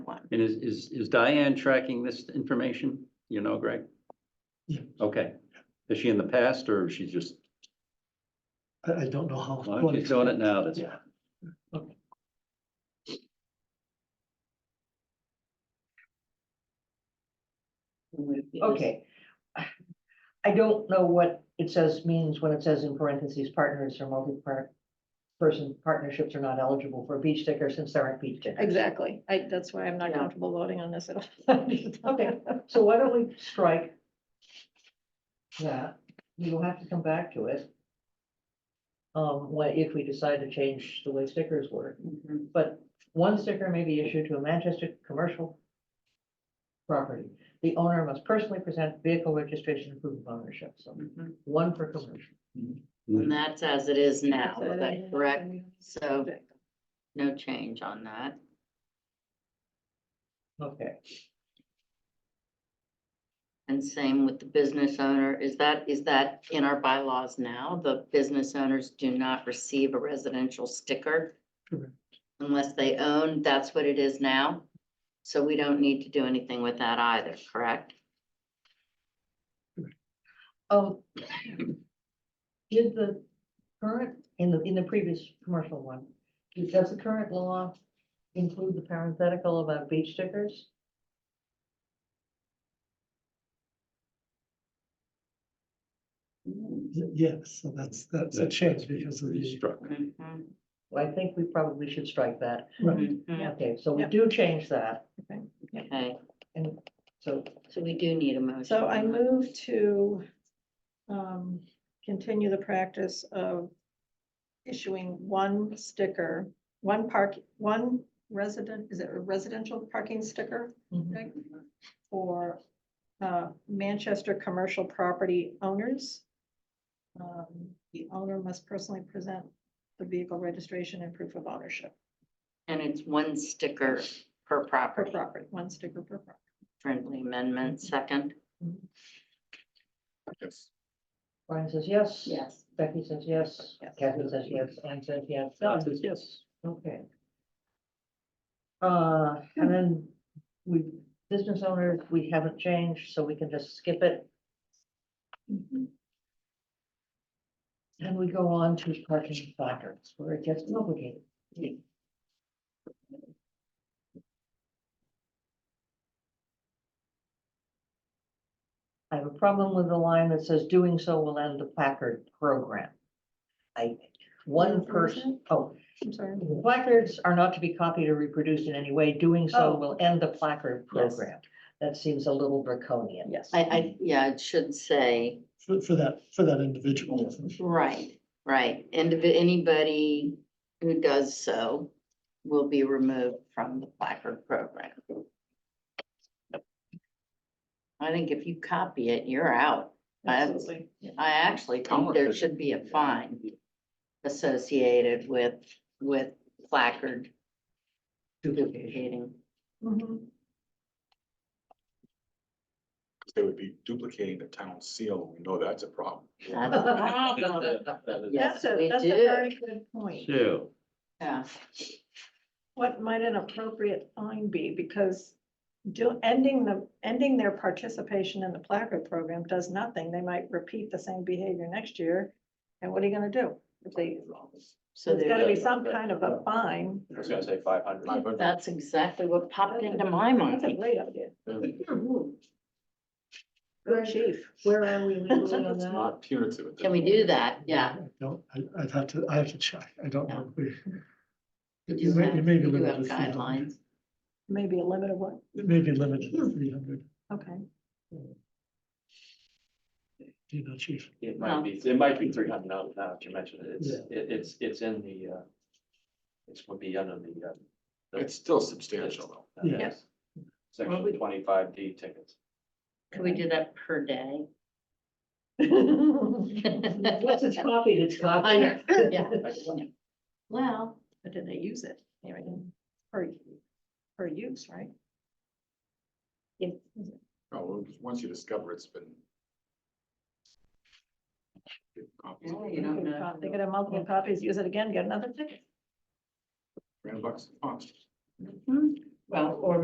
And is, is, is Diane tracking this information? You know, Greg? Yeah. Okay. Is she in the past or is she just, I, I don't know how. well, she's doing it now? That's, Yeah, Okay. I don't know what it says means when it says in parentheses, partners or multi-part person partnerships are not eligible for a beach sticker since there aren't beach stickers. Exactly. I, that's why I'm not Yeah. comfortable voting on this at all. Okay, so why don't we strike that? We will have to come back to it. Um, what, if we decide to change the way stickers work, Mm-hmm, but one sticker may be issued to a Manchester commercial property. The owner must personally present vehicle registration and proof of ownership, so mm-hmm. Mhm. one for commercial. And that's as it is now, So, is that yeah, correct? and- So no change on that. Okay, And same with the business owner. Is that, is that in our bylaws now? The business owners do not receive a residential sticker Correct. unless they own, that's what it is now. So we don't need to do anything with that either, correct? um. Did the current, in the, in the previous commercial one, does the current law include the parenthetical about beach stickers? yes, so that's, that's a that's- change that's being because of the, Restruck. Mm-hmm, Mhm, Well, I think we probably should strike that. right, mhm. Okay, so we Yeah. do change that, Okay, and so, so we do need a motion. So I on that. move to um, continue the practice of issuing one sticker, one park, one resident, is it a residential parking sticker? mhm, Greg, For uh, Manchester commercial property owners. Um, The owner must personally present the vehicle registration and proof of ownership And it's one sticker per per property. property, one sticker per property. Friendly amendment, second? Yes. Brian says yes. Yes. Becky says yes, Yes. Kathy says yes, Anne says yes, Don done, says yes. okay. Uh, and then we, business owners, we haven't changed, so we can just skip it, Mm-hmm. and we go on to parking placards, where it gets complicated. I have a problem with the line that says doing so will end the placard program. I, one Where's that? person, oh, I'm sorry. Placards are not to be copied or reproduced in any way. Doing so Oh. will end the placard Yes. program. That seems a little draconian. Yes. I, I, yeah, it should say, for, for that, for that individual. right, right, and if anybody who does so will be removed from the placard program. I think if you copy it, you're out. I- Absolutely. I actually think there should be a fine associated with, with placard duplicating. Mhm. They would be duplicating the town seal. We know that's a problem. That's a problem. That's Yes, a, we that's a do. very good point. So, Yeah, What might an appropriate fine be? Because do, ending the, ending their participation in the placard program does nothing. They might repeat the same behavior next year. And what are you gonna do? If they, so there's gotta there's, be some kind of a fine. I was gonna say five hundred. Five hundred. that's exactly what popped into my That's a mind. great idea. Where- Good chief. Where are we legally on It's that? not punitive. at this Can we point. do that? Yeah. I Don't, I, I'd have to, I have to check, I don't know. if we- We It do may- have- it may be we do have limited to 300. guidelines. Maybe a limit of what? It may be limited to three hundred, Okay. you know, chief. It No. might be, it might be three hundred now, now that you mentioned it, it's, it- it's, it's in the, uh, it's would be under the, uh. the- It's still substantial though. uh, Yeah. Yes. Well, we- Section twenty-five D tickets. Can we do that per day? Once it's copied, it's I copied. know, yeah. Well, But did they use it? Anyway, Per, per use, right? if, No, well, once you discover it's been. Copies, well, you They don't could know. co- they could have multiple copies, use it again, get another ticket. grand bucks, pops. Mhm. Well, or